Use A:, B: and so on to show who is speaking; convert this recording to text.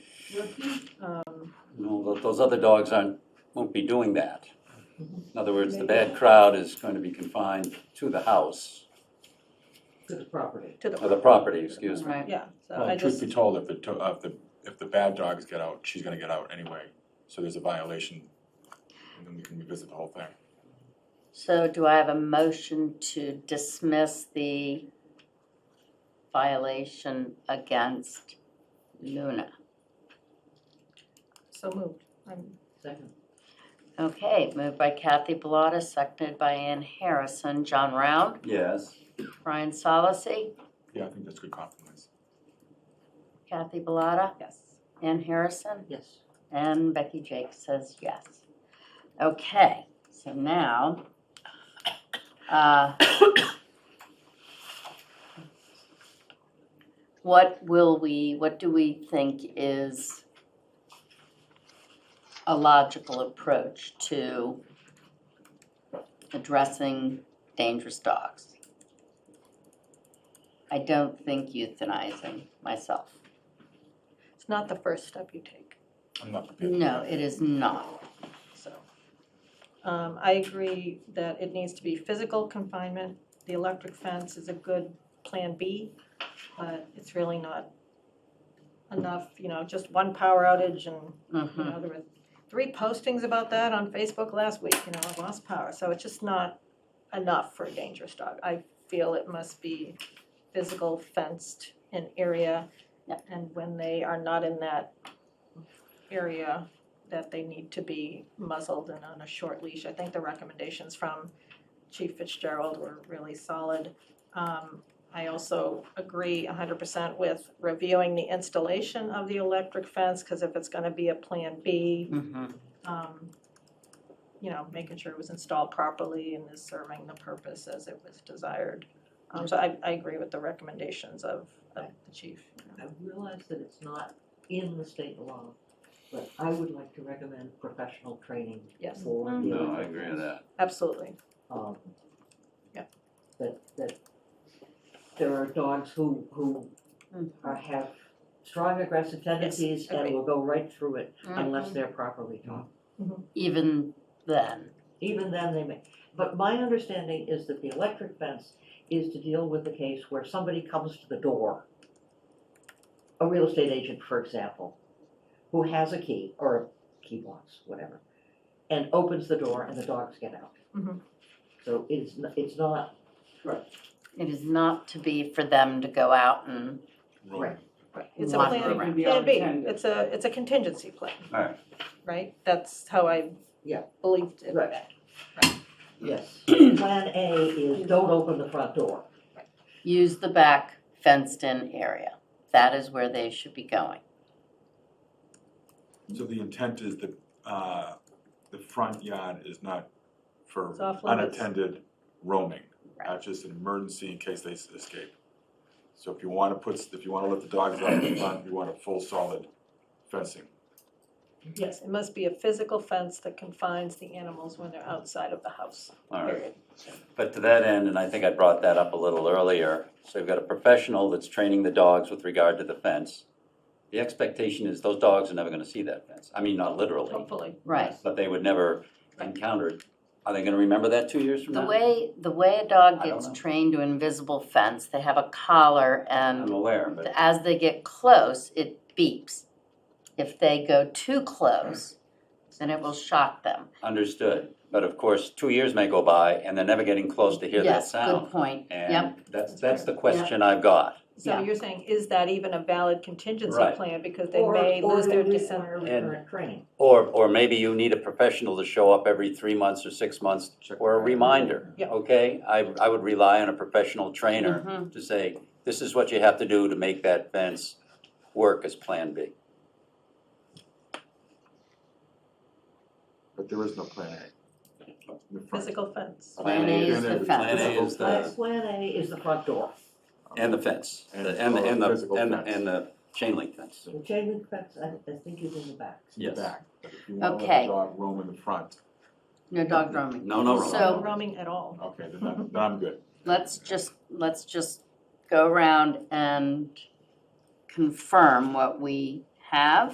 A: repeat, um,
B: No, tho- those other dogs aren't, won't be doing that. In other words, the bad crowd is going to be confined to the house,
C: to the property.
A: to the.
B: or the property, excuse me.
D: Right.
A: Yeah, so I
E: Well, truth
A: just,
E: be told, if the, to- uh, if the, if the bad dogs get out, she's gonna get out anyway, so there's a violation, and then we can revisit the whole thing.
D: So do I have a motion to dismiss the violation against Luna?
A: so moved. I'm-
C: Second.
D: Okay, moved by Kathy Bellata, seconded by Ann Harrison. John Round,
B: Yes,
D: Brian Solacey,
E: Yeah, I think that's a good compromise.
D: Kathy Bellata,
A: Yes.
D: Ann Harrison,
C: Yes.
D: and Becky Jake says yes. Okay, so now, uh, what will we, what do we think is a logical approach to addressing dangerous dogs? I don't think euthanizing myself.
A: It's not the first step you take,
E: I'm not prepared. for
D: No,
E: that.
D: it is not.
A: so. Um, I agree that it needs to be physical confinement. The electric fence is a good plan B, but it's really not enough, you know, just one power outage and You
D: Mhm.
A: know, there were three postings about that on Facebook last week, you know, I lost power, so it's just not enough for a dangerous dog. I feel it must be physical fenced in area.
D: Yeah.
A: And when they are not in that area, that they need to be muzzled and on a short leash. I think the recommendations from Chief Fitzgerald were really solid. Um, I also agree hundred percent with reviewing the installation of the electric fence, because if it's gonna be a Plan B,
D: Mhm.
A: um, you know, making sure it was installed properly and is serving the purpose as it was desired. Um, so I, I agree with the recommendations of, of the chief.
C: I realize that it's not in the state law, but I would like to recommend professional training
A: Yes,
C: for. the
B: no, I
C: electric
B: agree with
C: fence.
B: that.
A: absolutely.
C: Um.
A: Yeah.
C: That, that there are dogs who, who
D: Mhm.
C: are, have strong aggressive tendencies and
A: agree.
C: will go right through it unless
D: Mhm.
C: they're properly taught.
B: Mm-hmm.
D: Even then,
C: Even then, they may, but my understanding is that the electric fence is to deal with the case where somebody comes to the door. A real estate agent, for example, who has a key or key blocks, whatever, and opens the door and the dogs get out.
A: Mhm.
C: So it's, n- it's not,
D: it is not to be for them to go out and,
E: Roll.
C: Right.
A: It's a
D: Lot
A: plan,
D: of
A: plan
D: them.
A: B, it's a, it's a contingency plan.
B: Alright.
A: Right, that's how I
C: Yeah.
A: believed it.
C: Right. yes, plan A is don't open the front door.
D: use the back fenced-in area. That is where they should be going.
E: So the intent is that, uh, the front yard is not for
A: It's off limits.
E: unattended roaming.
D: Right.
E: That's just an emergency in case they s- escape. So if you wanna put, s- if you wanna let the dogs out in the front, you want a full solid fencing.
A: Yes, it must be a physical fence that confines the animals when they're outside of the house.
B: All right.
A: Period.
B: But to that end, and I think I brought that up a little earlier, so you've got a professional that's training the dogs with regard to the fence. The expectation is those dogs are never gonna see that fence. I mean, not literally,
A: Hopefully.
D: Right.
B: but they would never encounter it. Are they gonna remember that two years from now?
D: The way, the way a dog
B: I don't
D: gets
B: know.
D: trained to invisible fence, they have a collar
B: I'm
D: and
B: aware, but
D: as they get close, it beeps. If they go too close, then it will shock them.
B: understood. But of course, two years may go by and they're never getting close to hear that
D: Yes,
B: sound.
D: good point. Yep,
B: And that's, that's the question I've got.
A: So
D: Yeah.
A: you're saying, is that even a valid contingency
B: Right.
A: plan? Because they may lose their descent.
C: Or, or do we
B: And-
C: require recurrent training.
B: Or, or maybe you need a professional to show up every three months or six months or a reminder,
A: Yeah.
B: okay? I, I would rely on a professional trainer
D: Mhm.
B: to say, this is what you have to do to make that fence work as Plan B.
E: But there is no plan A. The front-
A: Physical fence.
D: Plan A is
B: Plan A
D: the
B: is
C: Plan,
B: the,
C: plan A is the front door,
B: and the fence, the- and, the- and the, and the, and the chain link fence.
C: the chain link fence, I, I think is in the back.
E: It's in the
B: Yes.
E: back, but if you wanna let
D: Okay.
E: the dog roam in the front,
D: No
B: Mm-hmm.
D: dog drumming.
B: No, no, wrong.
D: So-
A: No roaming at all.
E: okay, then I'm, then I'm good.
D: Let's just, let's just go around and confirm what we have.